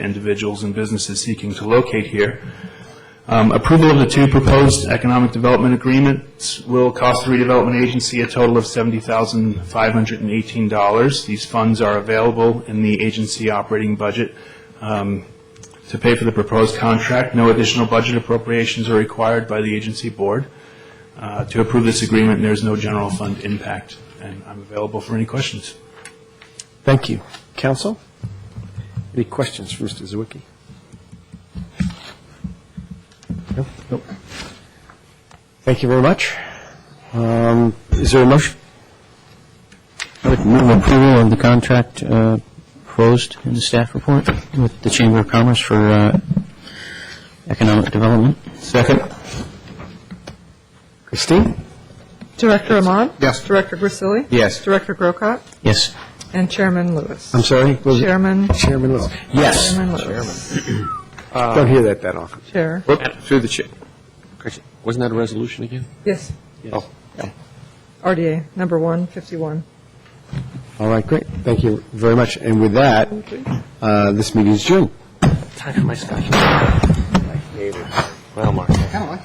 individuals and businesses seeking to locate here. Um, Approval of the two proposed economic development agreements will cost the redevelopment agency a total of $70,518. These funds are available in the agency operating budget um, to pay for the proposed contract. No additional budget appropriations are required by the agency board. Uh, To approve this agreement, there's no general fund impact, and I'm available for any questions. Thank you. Council. Any questions for Mr. Zawicki? No? Nope. Thank you very much. Um, Is there a motion? Move approval of the contract uh, proposed in the staff report with the Chamber of Commerce for uh, economic development. Second. Christine? Director Ahmad? Yes. Director Grisilli? Yes. Director Grocott? Yes. And Chairman Lewis? I'm sorry? was it- Chairman, Chairman Lewis. Yes. Chairman Lewis. Don't hear that that often. Chair, Through the chair. Wasn't that a resolution again? yes, Oh, RDA, number 151. All right, great. Thank you very much. And with that, uh, this meeting is adjourned. Time for my stuff. Well, Mark.